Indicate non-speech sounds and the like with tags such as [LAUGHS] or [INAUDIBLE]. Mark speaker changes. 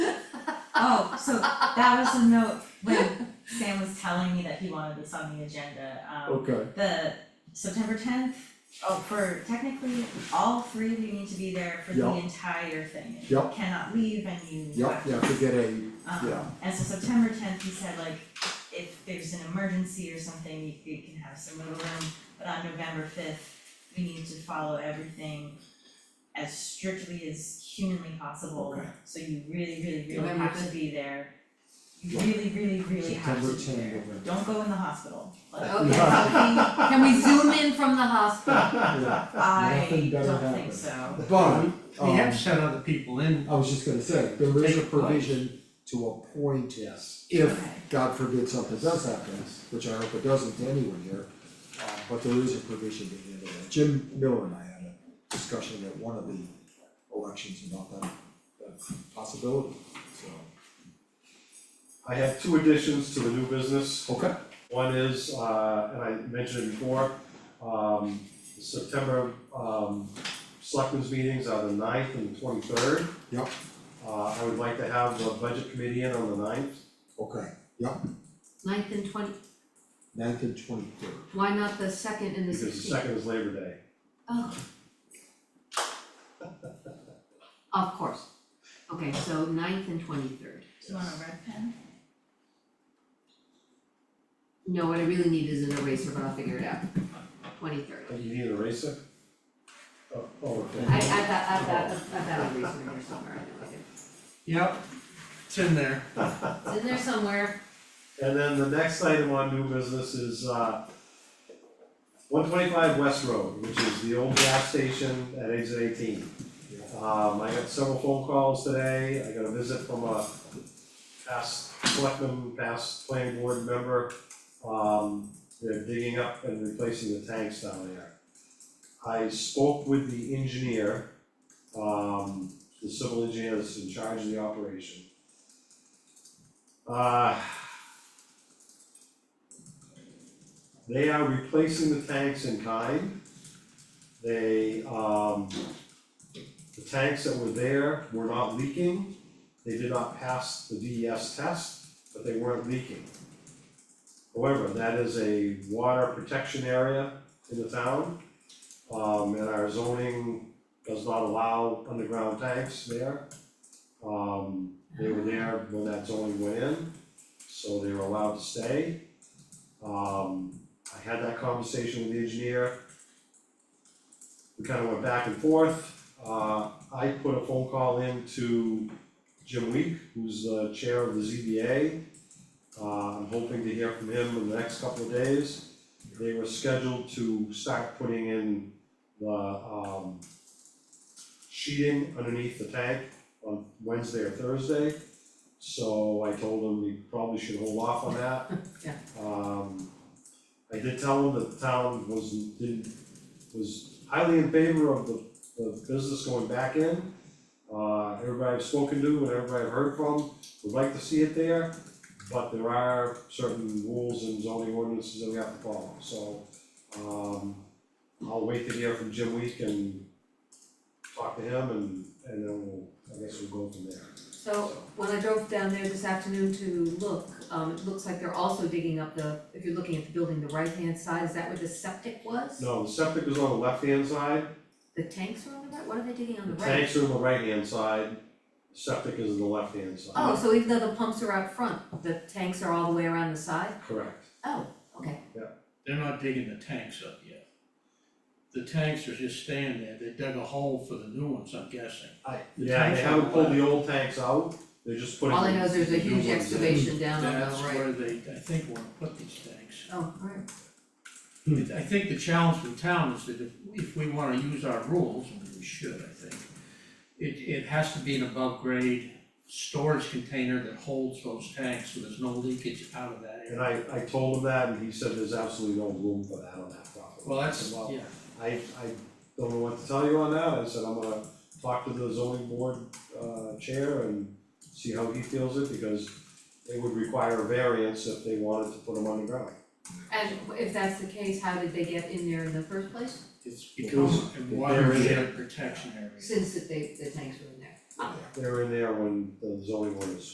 Speaker 1: Oh, so that was the note when Sam was telling me that he wanted this on the agenda, um,
Speaker 2: Okay,
Speaker 1: the September tenth. Oh, for technically, all three of you need to be there for the
Speaker 2: Yeah.
Speaker 1: entire thing, and you
Speaker 2: Yeah.
Speaker 1: cannot leave and you.
Speaker 2: yeah, yeah, to get a, yeah.
Speaker 1: Um, and so September tenth, he said like, if there's an emergency or something, you you can have some wiggle room, but on November fifth, we need to follow everything as strictly as humanly possible.
Speaker 2: Okay.
Speaker 1: So you really, really, really
Speaker 3: November
Speaker 1: have to
Speaker 3: 5th?
Speaker 1: be there. You
Speaker 2: Yeah.
Speaker 1: really, really, really have to
Speaker 2: September
Speaker 1: be
Speaker 2: 10,
Speaker 1: there.
Speaker 2: November.
Speaker 1: Don't go in the hospital, like,
Speaker 3: Okay,
Speaker 2: [LAUGHS]
Speaker 3: so can, can we zoom in from the
Speaker 4: Ah.
Speaker 3: hospital?
Speaker 2: Yeah.
Speaker 1: I
Speaker 2: Nothing better
Speaker 1: don't think
Speaker 2: happens.
Speaker 1: so.
Speaker 2: But,
Speaker 5: We have
Speaker 2: um,
Speaker 5: to send other people in.
Speaker 2: I was just gonna say, there is
Speaker 5: Take
Speaker 2: a
Speaker 5: a vote.
Speaker 2: provision to appoint
Speaker 5: Yes.
Speaker 2: if,
Speaker 1: Okay.
Speaker 2: God forbid, something does happen, which I hope it doesn't to anyone here. uh, but there is a provision to handle that. Jim Miller and I had a discussion at one of the elections about that, that possibility, so.
Speaker 4: I have two additions to the new business.
Speaker 2: Okay.
Speaker 4: One is, uh, and I mentioned it before, um, September, um, selectmen's meetings are the ninth and twenty-third.
Speaker 2: Yep.
Speaker 4: Uh, I would like to have the budget committee in on the ninth.
Speaker 2: Okay,
Speaker 3: Ninth and twenty,
Speaker 2: ninth and twenty-third.
Speaker 3: why not the second and the
Speaker 4: Because the
Speaker 3: sixteenth?
Speaker 4: second is Labor Day.
Speaker 3: Oh. Of course. Okay, so ninth and twenty-third.
Speaker 1: Do you want a red pen?
Speaker 3: No, what I really need is an eraser, but I'll figure it out. Twenty-third.
Speaker 4: Do you need an eraser? Oh, oh, okay.
Speaker 3: I, I've got, I've got, I've got a eraser in here somewhere, I know I do.
Speaker 5: Yep, it's in there.
Speaker 3: It's in there somewhere.
Speaker 4: And then the next item on new business is, uh, one twenty-five West Road, which is the old gas station at exit eighteen. Um, I got several phone calls today, I got a visit from a past selectman, past planning board member. Um, they're digging up and replacing the tanks down there. I spoke with the engineer, um, the civil engineer that's in charge of the operation. Uh, They are replacing the tanks in kind. They, um, the tanks that were there were not leaking. They did not pass the DES test, but they weren't leaking. However, that is a water protection area in the town. Um, and our zoning does not allow underground tanks there. Um, they were there when that zoning went in, so they were allowed to stay. Um, I had that conversation with the engineer. We kind of went back and forth. Uh, I put a phone call in to Jim Week, who's the chair of the ZBA. Uh, I'm hoping to hear from him in the next couple of days. They were scheduled to start putting in the, um, sheeting underneath the tank on Wednesday or Thursday. So I told him we probably should hold off on that.
Speaker 3: Yeah.
Speaker 4: Um, I did tell him that the town was, did, was highly in favor of the, the business going back in. Uh, everybody I've spoken to and everybody I've heard from would like to see it there, but there are certain rules and zoning ordinances that we have to follow, so, um, I'll wait to hear from Jim Week and talk to him and, and then we'll, I guess we'll go from there.
Speaker 3: So when I drove down there this afternoon to look, um, it looks like they're also digging up the, if you're looking at the building, the right-hand side, is that where the septic was?
Speaker 4: No, the septic is on the left-hand side,
Speaker 3: The tanks are on the right, what are they digging on
Speaker 4: the
Speaker 3: the right?
Speaker 4: tanks are on the right-hand side, septic is on the left-hand side.
Speaker 3: Oh, so even though the pumps are out front, the tanks are all the way around the side?
Speaker 4: Correct.
Speaker 3: Oh, okay.
Speaker 6: They're not digging the tanks up yet. The tanks are just staying there, they dug a hole for the new ones, I'm guessing.
Speaker 4: I,
Speaker 6: The
Speaker 4: yeah, they
Speaker 6: tanks are
Speaker 4: haven't pulled
Speaker 6: left.
Speaker 4: the old tanks out, they're just putting
Speaker 3: All I know is there's a
Speaker 4: the new
Speaker 3: huge
Speaker 4: ones in.
Speaker 3: excavation down on the right.
Speaker 6: That's where they, I think, wanna put these tanks.
Speaker 3: Oh, alright,
Speaker 6: I think the challenge with town is that if, if we wanna use our rules, and we should, I think, it, it has to be an above grade storage container that holds those tanks, so there's no leakage out of that
Speaker 4: And
Speaker 6: area.
Speaker 4: I, I told him that, and he said there's absolutely no room for that on that property.
Speaker 6: Well,
Speaker 4: I
Speaker 6: that's,
Speaker 4: said, "Well,
Speaker 6: yeah,
Speaker 4: I, I don't know what to tell you on that, I said, I'm gonna talk to the zoning board, uh, chair and see how he feels it, because it would require a variance if they wanted to put them underground.
Speaker 3: and if that's the case, how did they get in there in the first place?
Speaker 6: it's
Speaker 4: Because
Speaker 6: because of
Speaker 4: they're in
Speaker 6: watershed protection area.
Speaker 3: Since that they, the tanks were in there.
Speaker 4: They were in there when the zoning ordinance